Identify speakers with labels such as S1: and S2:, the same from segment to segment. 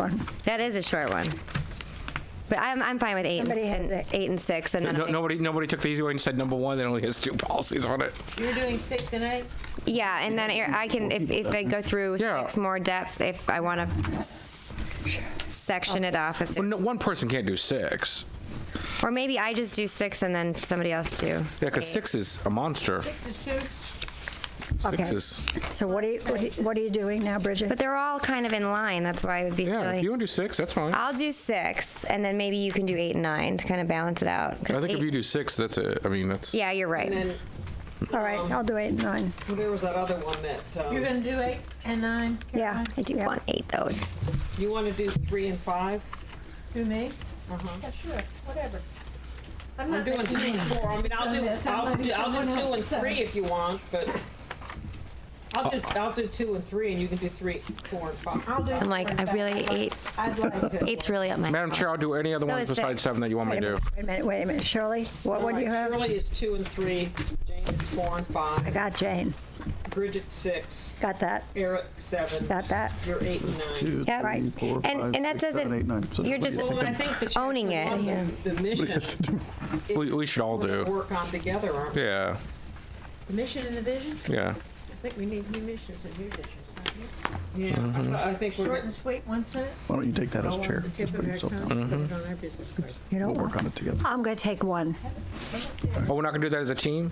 S1: one.
S2: That is a short one. But I'm, I'm fine with eight, and,
S1: Somebody has
S2: and
S1: it.
S2: eight and six, and then
S3: No, nobody, nobody took the easy way and said number one. That only has two policies on it.
S4: You're doing six and eight?
S2: yeah, and then I can if, if I go through
S3: Yeah.
S2: six more depth if I want to s- section it off, it's,
S3: Well, no, one person can't do six.
S2: or maybe I just do six and then somebody else do.
S3: Yeah, because six is a monster.
S4: Six is two?
S3: Six
S1: Okay.
S3: is
S1: So what are you, what are you- what are you doing now, Bridget?
S2: But they're all kind of in line. That's why it would be
S3: yeah. If
S2: silly.
S3: you want to do six, that's fine.
S2: I'll do six, and then maybe you can do eight and nine to kind of balance it out. 'Cause
S3: I think if
S2: eight-
S3: you do six, that's it. I mean, that's
S2: yeah, you're right.
S5: And then
S1: All right, I'll do eight and nine.
S5: there was that other one that,
S4: You're
S5: um,
S4: gonna do eight and nine?
S1: Yeah.
S2: I do
S1: yeah.
S2: want eight though.
S5: you want to do three and five?
S4: Do me? Uh-huh. Yeah, sure, whatever. I'm
S5: I'm
S4: not
S5: doing two
S4: making-
S5: and four. I mean, I'll do,
S4: Yes, I'm
S5: I'll
S4: like
S5: do, I'll
S4: someone
S5: do two
S4: else
S5: and
S4: said.
S5: three if you want, but I'll do, I'll do two and three and you can do three, four and five.
S4: I'll do
S2: I'm like,
S4: four and
S2: I really
S4: five.
S2: eight.
S4: I'd like to.
S2: Eight's really up my.
S3: Madam Chair, I'll do any other ones
S2: is the-
S3: besides seven that you want me
S1: Wait a
S3: to
S1: minute, wait a
S3: do.
S1: minute, wait a minute. Shirley, what would
S5: Alright,
S1: you have?
S5: Shirley is two and three, Jane is four and
S1: I
S5: five,
S1: got Jane.
S5: Bridget's six,
S1: Got that,
S5: Eric seven,
S1: got that.
S5: you're eight and nine.
S6: Two,
S2: Yep.
S1: Right.
S6: three, four,
S2: And-
S6: five,
S2: and that
S6: six, seven,
S2: doesn't-
S6: eight, nine. So
S2: you're
S6: nobody
S2: just-
S6: has
S5: Well,
S6: to
S5: and I
S6: pick
S5: think the
S2: Owning
S5: chapter
S2: it,
S5: one,
S2: yeah.
S5: the the mission,
S3: We, we should all
S5: we're gonna
S3: do.
S5: work on together, aren't we?
S3: Yeah.
S4: The Mission and the vision?
S3: Yeah.
S4: I think we need new missions and new visions. don't we?
S5: Yeah,
S3: Mm-hmm.
S5: I I think we're.
S4: Short
S5: gonna-
S4: and sweet, one sentence?
S6: Why don't you take that as
S4: All on
S6: chair?
S4: the tip
S6: Just
S4: of
S6: put
S4: our
S6: yourself
S4: tongue,
S6: down.
S4: put it on our business card.
S1: You know,
S6: We'll work on it together.
S1: I'm going to take one.
S3: Oh, we're not gonna do that as a team.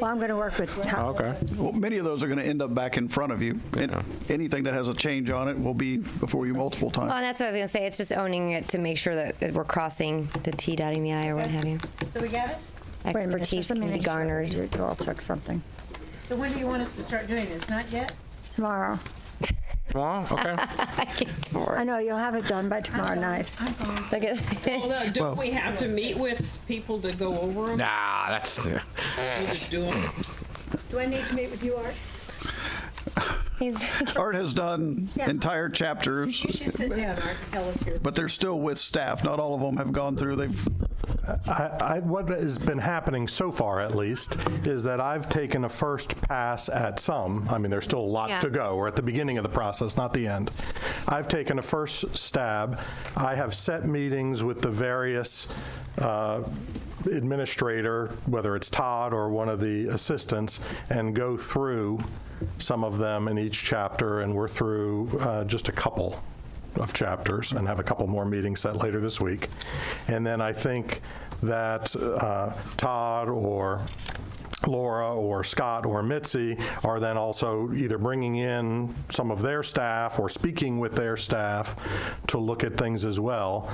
S1: Well, I'm going to work with
S3: Oh,
S1: Tom.
S3: okay.
S6: Well, many of those are going to end up back in front of you. And
S3: Yeah.
S6: Anything that has a change on it will be before you multiple
S2: Well,
S6: times.
S2: and that's what I was gonna say. It's just owning it to make sure that that we're crossing the T, dotting the I, or what have you.
S4: So we got it?
S1: Wait a minute,
S2: Expertise
S1: just a
S2: can be
S1: minute.
S2: garnered.
S1: You all took something.
S4: So when do you want us to start doing this? Not yet?
S1: Tomorrow.
S3: Tomorrow? Okay.
S2: I can't
S1: I
S2: work.
S1: know, you'll have it done by tomorrow night.
S4: I'm going.
S2: Look at-
S5: Well, no, don't we have to meet with people to go over them?
S3: nah, that's. Yeah.
S5: We'll just do 'em.
S4: Do I need to meet with you, Art?
S2: he's-
S6: Art has done entire chapters,
S4: You should sit down, Art, and tell us your.
S6: but they're still with staff. Not all of them have gone through. They've,
S7: I, I, what has been happening so far, at least, is that I've taken a first pass at some. I mean, there's still a lot
S2: Yeah.
S7: to go. We're at the beginning of the process, not the end. I've taken a first stab. I have set meetings with the various uh, administrator, whether it's Todd or one of the assistants, and go through some of them in each chapter, and we're through uh, just a couple of chapters and have a couple more meetings set later this week. And then I think that uh, Todd or Laura or Scott or Mitzi are then also either bringing in some of their staff or speaking with their staff to look at things as well.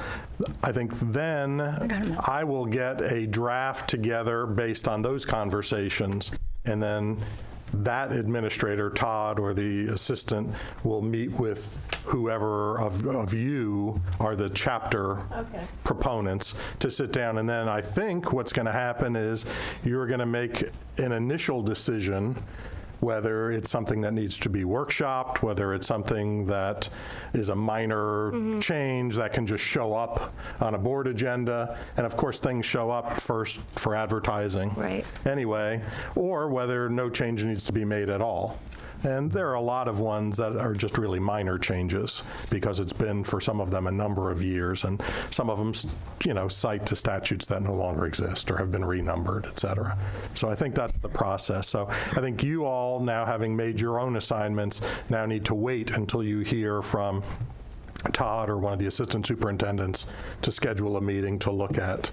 S7: I think then I will get a draft together based on those conversations and then that administrator, Todd, or the assistant will meet with whoever of, of you are the chapter proponents to sit down. And then I think what's going to happen is you're going to make an initial decision whether it's something that needs to be workshopped, whether it's something that is a minor change that can just show up on a board agenda. And of course, things show up first for advertising
S2: Right.
S7: anyway, or whether no change needs to be made at all. And there are a lot of ones that are just really minor changes because it's been for some of them a number of years, and some of them, you know, cite to statutes that no longer exist or have been renumbered, et cetera. So I think that's the process. So I think you all, now having made your own assignments, now need to wait until you hear from Todd or one of the assistant superintendents to schedule a meeting to look at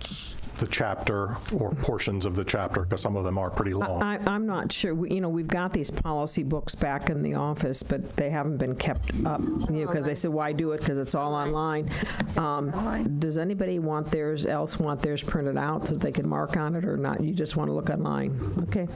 S7: the chapter or portions of the chapter, because some of them are pretty long.
S8: I, I'm not sure, We- you know, we've got these policy books back in the office, but they haven't been kept up, you know, because they said, why do it, because it's all online. Um, Does anybody want theirs, else want theirs printed out so they can mark on it or not? You just want to look online, okay?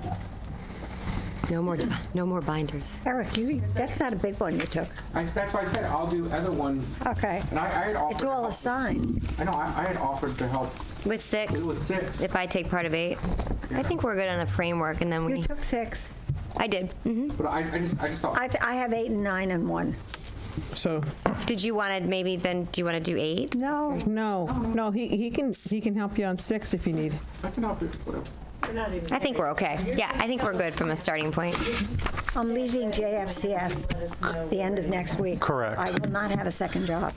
S2: No more, no more binders.
S1: Eric, you, that's not a big one you took.
S3: I, that's why I said I'll do other ones.
S1: Okay.
S3: And I, I had offered.
S1: It's
S3: to
S1: all
S3: help-
S1: assigned.
S3: I know. I, I had offered to help
S2: With six,
S3: with six.
S2: if I take part of eight, I think we're good on the framework, and then
S1: You
S2: we.
S1: took six.
S2: I did. hmm
S3: But I, I just, I just thought.
S1: I, I have eight and nine and one.
S8: So,
S2: Did you want to maybe then? Do you want to do eight?
S1: No,
S8: Oh, no, no, he, he can, he can help you on six if you need.
S3: I can help you. Whatever.
S2: I think we're okay. Yeah, I think we're good from a starting point.
S1: I'm leaving JFCS the end of next week.
S7: Correct.
S1: I will not have a second job.